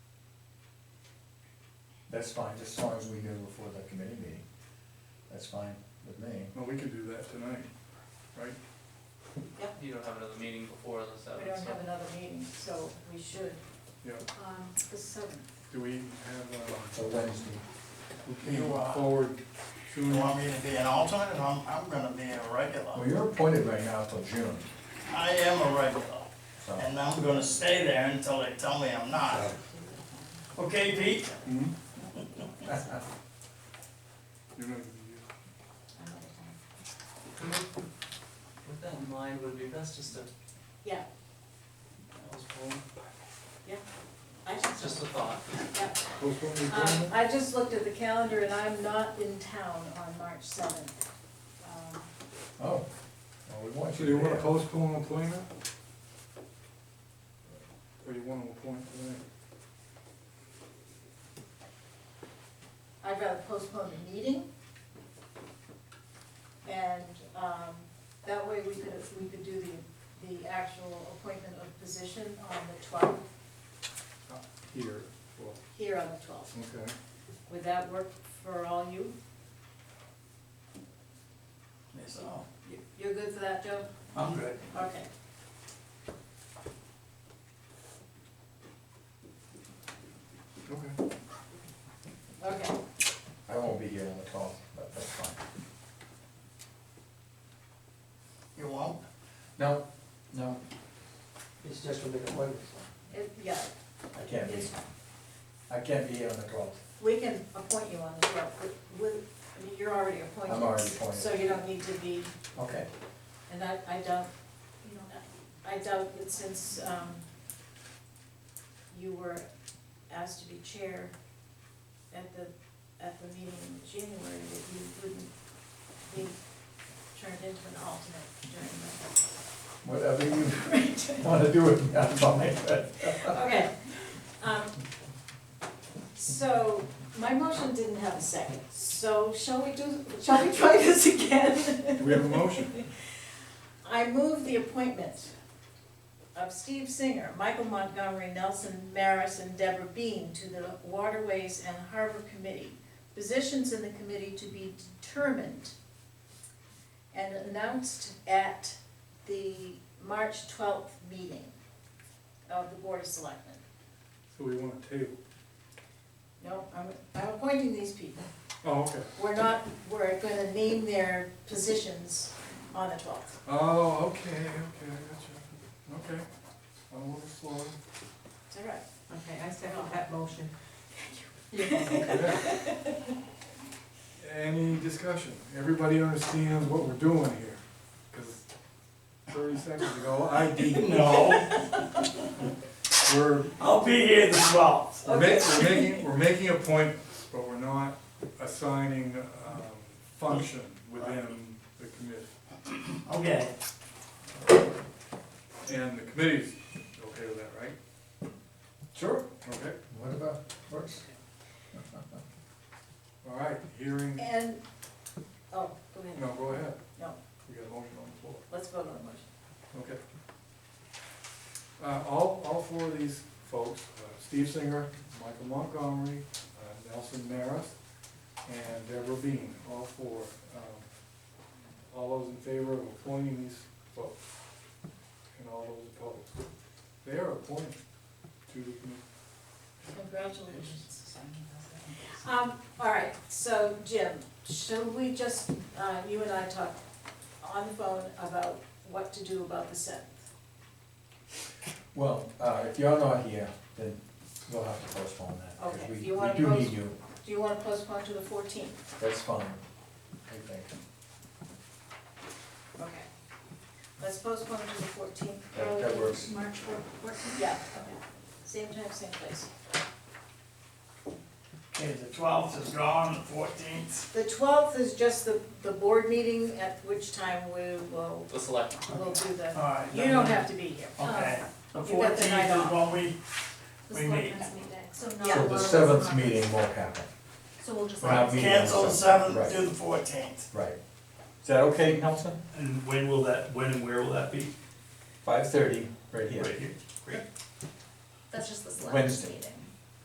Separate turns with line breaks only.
That's fine, just as long as we do it before the committee meeting, that's fine with me.
Well, we can do that tonight, right?
You don't have another meeting before the
We
seventh,
don't
so.
have another meeting, so we should,
Yeah,
um, the seventh.
do we have,
So Wednesday.
uh, can you move forward
You
soon?
want me to be an alternate, I'm, I'm gonna be a
Well,
regular.
you're appointed right now till June,
I am a regular,
so.
and I'm gonna stay there until they tell me I'm not. Okay, Pete?
hmm? You're gonna-
With that in mind, would it be best just to
Yeah,
postpone,
I
it's
just,
just a thought.
yeah.
Postpone the
Um,
appointment?
I just looked at the calendar and I'm not in town on March seventh. Um,
Oh, well, we want
So
you
do you
there.
wanna postpone appointment? Or Oh, you wanna appoint tonight?
I'd rather postpone the meeting. And, um, that way we could, we could do the, the actual appointment of position on the twelfth,
Here, well,
here on the twelfth.
okay.
Would that work for all you?
Yes, I'll.
You- You're good for that, Joe?
I'm good.
Okay.
Okay.
Okay,
I won't be here on the twelfth, but that's fine.
You won't?
No, no,
It's just for the appointments.
it, yeah,
I can't be,
it's,
I can't be here on the twelfth.
we can appoint you on the twelfth, I mean, you're already appointed.
I'm already appointed.
So Oh, you don't need to be,
Okay,
and I, I doubt, you know, I doubt that since, um, you were asked to be chair at the, at the meeting in January, that you wouldn't be turned into an alternate
whatever you
during the. Right.
wanna do with me, I'm fine.
Okay, um, so, my motion didn't have a second, so shall we do, shall we try this again?
Do we have a motion?
I move the appointment of Steve Singer, Michael Montgomery, Nelson Maris, and Deborah Bean to the Waterways and Harbor Committee. Positions in the committee to be determined and announced at the March twelfth meeting of the Board of Selectmen.
So we want a table.
No, I'm, I'm appointing these people.
Oh, okay.
We're not, we're gonna name their positions on the twelfth.
Oh, okay, okay, I got you. Okay. I'm a little slow.
Is that right?
Okay, I second that motion.
Okay. Any discussion? Everybody understands what we're doing here? Because thirty seconds ago, I didn't.
No,
We're,
I'll be here the twelfth.
we're ma- we're making, we're making a point, but we're not assigning, um, function within the committee.
Okay,
And the committee's okay with that, right?
Sure.
Okay,
What about, works?
all right, hearing,
And, oh, go ahead,
no, go ahead.
No.
We got a motion on the floor.
let's vote on the motion.
Okay. Uh, all, all four of these folks, uh, Steve Singer, Michael Montgomery, uh, Nelson Maris, and Deborah Bean, all four. Um, All those in favor of appointing these folks, and all those opposed. They are appointed to the committee.
Congratulations. Um, all right, so Jim, shall we just, uh, you and I talk on the phone about what to do about the seventh?
Well, uh, if you're not here, then we'll have to postpone that, because
Okay,
we, we
you wanna
do need
post-
you,
Do you wanna postpone to the fourteenth?
that's fine, I think,
Okay. Let's postpone to the fourteenth.
that, that works.
March fourteenth?
Yeah, same time, same place.
okay, the twelfth is gone, the fourteenth,
The twelfth is just the, the board meeting, at which time we will,
The select,
we'll do the,
alright.
you don't have to be here.
Okay, the
You got the
fourteenth
night
is
off.
when we, we meet.
So
So the seventh meeting won't happen,
So we'll just.
We're not meeting on
Cancel the
Right.
seventh, do the fourteenth.
right. Is that okay, Nelson?
And when will that, when and where will that be?
Five thirty, right here.
Right here?
That's just the
Wednesday.
meeting.